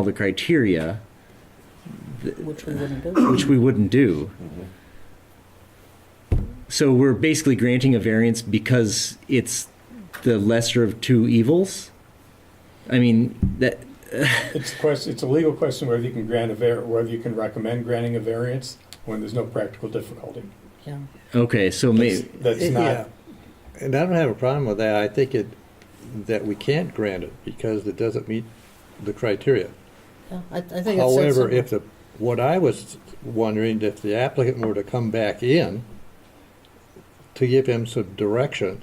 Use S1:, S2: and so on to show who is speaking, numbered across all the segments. S1: all the criteria,
S2: which we wouldn't do.
S1: which we wouldn't do.
S3: Mm-hmm.
S1: So we're basically granting a variance because it's the lesser of two evils? I mean, that,
S3: It's a question, it's a legal question whether you can grant a var, whether you can recommend granting a variance when there's no practical difficulty.
S2: Yeah.
S1: okay, so maybe,
S3: That's
S4: Yeah,
S3: not,
S4: And I don't have a problem with that. I think it, that we can't grant it because it doesn't meet the criteia.
S2: Yeah, I, I think it's.
S4: However, if the, what I was wondering, if the applicant were to come back in to give him some direction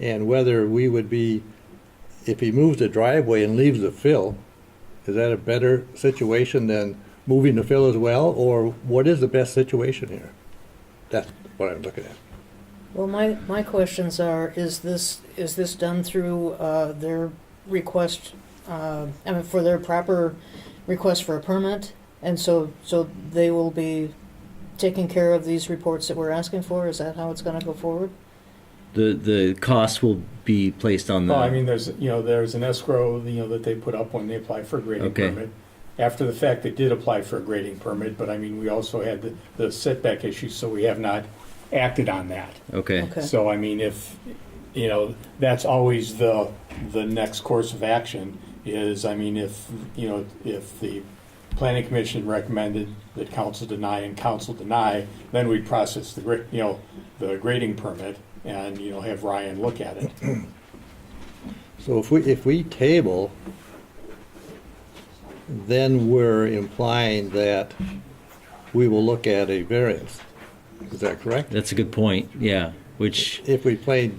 S4: and whether we would be, if he moves the driveway and leaves the fill, is that a better situation than moving the fill as well? Or what is the best situation here? That's what I'm looking at.
S2: Well, my, my questions are, is this, is this done through, uh, their request, uh, I mean, for their proper request for a permit? And so, so they will be taking care of these reports that we're asking for? Is that how it's gonna go forward?
S1: the, the cost will be placed on the.
S3: well, I mean, there's, you know, there's an escrow, you know, that they put up when they apply for a grading
S1: Okay.
S3: permit. After the fact, they did apply for a grading permit, but I mean, we also had the- the setback issue, so we have not acted on that.
S1: Okay,
S2: Okay.
S3: So I mean, if, you know, that's always the, the next course of action is, I mean, if, you know, if the planning commission recommended that council deny and council deny, then we process the, gra- you know, the grading permit and, you know, have Ryan look at it.
S4: So if we, if we table, then we're implying that we will look at a variance. Is that correct?
S1: that's a good point, yeah, which,
S4: If we play,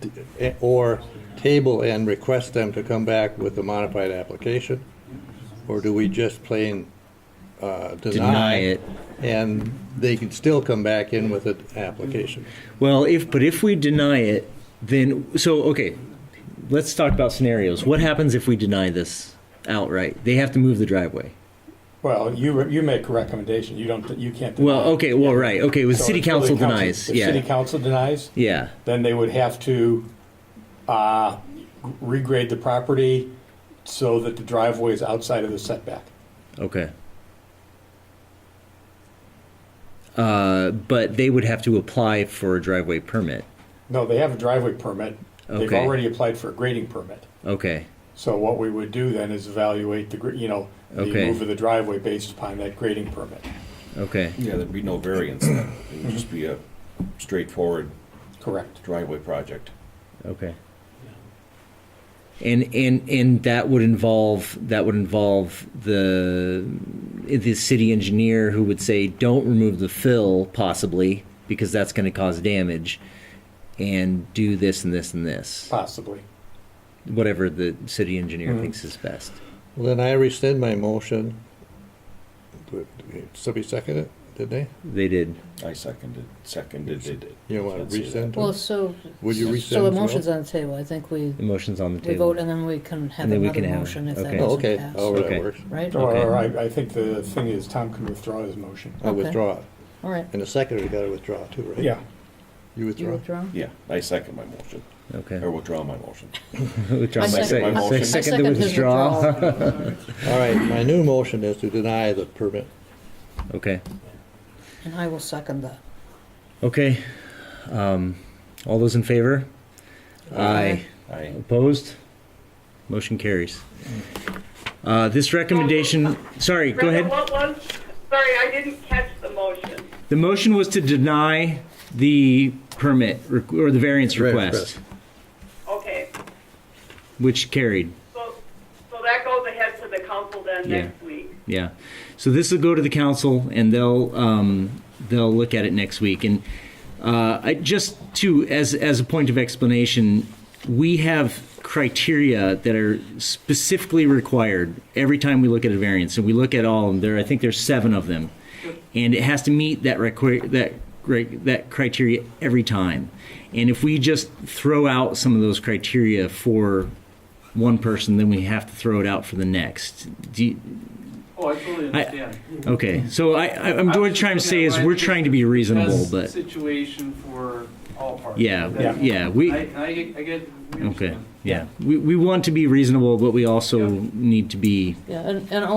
S4: d- eh, or table and request them to come back with a modified application? Or do we just plain uh,
S1: deny
S4: deny?
S1: it.
S4: And they can still come back in with an application?
S1: Well, if, but if we deny it, then, so, okay, let's talk about scenarios. What happens if we deny this outright? They have to move the driveway.
S3: Well, you, you make a recommendation, you don't, you can't deny.
S1: Well, okay, well, right, okay, the
S3: So
S1: city
S3: if the
S1: council denies,
S3: If city
S1: yeah,
S3: council denies,
S1: yeah,
S3: then they would have to uh, regrade the property so that the driveway is outside of the setback.
S1: okay. Uh, but they would have to apply for a driveway permit,
S3: No, they have a driveway permit. They've
S1: Okay.
S3: already applied for a grading permit.
S1: okay,
S3: So what we would do then is evaluate the, gr- you know, the
S1: Okay.
S3: move of the driveway based upon that grading permit.
S1: okay,
S5: Yeah, there'd be no variance then. It would just be a straightforward
S3: Correct.
S5: driveway project.
S1: okay. And, and, and that would involve, that would involve the, the city engineer who would say, don't remove the fill possibly, because that's gonna cause damage, and do this and this and this,
S3: Possibly.
S1: whatever the city engineer
S3: Mhm.
S1: thinks is best.
S4: Well, Then I rescind my motion. Did- did Somebody second it, did they?
S1: They did.
S5: I seconded, seconded, they did.
S4: You want
S5: Can't
S4: to
S5: say that.
S4: rescind?
S2: Well, so,
S4: Would you rescind?
S2: so
S4: as
S2: a
S4: well?
S2: motion's on the table, I think we,
S1: The motion's on the
S2: we
S1: table.
S2: vote and then we can have
S1: And then we
S2: another
S1: can have-
S2: motion if that
S1: okay.
S4: Oh,
S2: doesn't
S4: okay.
S2: pass.
S4: Oh,
S1: Okay.
S4: that works.
S2: Right, all
S1: Okay.
S3: Or I, I think the thing is Tom can withdraw his motion.
S4: I
S2: Okay.
S4: withdraw it.
S2: right,
S4: And the secretary got to withdraw too, right?
S3: Yeah.
S4: You
S2: you
S4: withdraw?
S2: withdraw?
S5: Yeah, I second my motion,
S1: Okay.
S5: or withdraw my motion.
S1: Withdraw
S2: I
S1: my
S2: second-
S1: second.
S5: I- I
S1: Second
S2: second
S1: to
S2: his
S1: withdraw.
S2: withdrawal.
S4: All right, my new motion is to deny the permit.
S1: Okay,
S2: And I will second that.
S1: okay. Um, all those in favor? Aye.
S5: I,
S1: Opposed? Motion carries. Uh, this recommendation, sorry, go
S6: Brenda,
S1: ahead.
S6: What was, sorry, I didn't catch the motion.
S1: The motion was to deny the permit re- or the variance
S4: Variance
S1: request,
S6: Okay,
S1: which carried.
S6: so, so that goes ahead to the council then
S1: Yeah.
S6: next week.
S1: Yeah. So this will go to the council, and they'll um, they'll look at it next week. And uh, I, just to as as a point of explanation, we have criteria that are specifically required every time we look at a variance, and we look at all of them. There, I think there's seven of them, and it has to meet that requi- that cri- that criteria every time. And if we just throw out some of those criteria for one person, then we have to throw it out for the next. Do you,
S7: Oh, I totally
S1: I-
S7: understand.
S1: Okay, so I, I, I'm
S7: I
S1: doing
S7: was
S1: trying to
S7: just
S1: say
S7: looking
S1: is
S7: at
S1: we're
S7: my
S1: trying to be reasonable,
S7: Best
S1: but
S7: situation for all parties.
S1: Yeah,
S7: That-
S1: yeah, we-
S7: I, I, I get, we
S1: Okay,
S7: understand.
S1: yeah. We, we want to be reasonable, but we also
S7: Yeah.
S1: need to be
S2: Yeah, and, and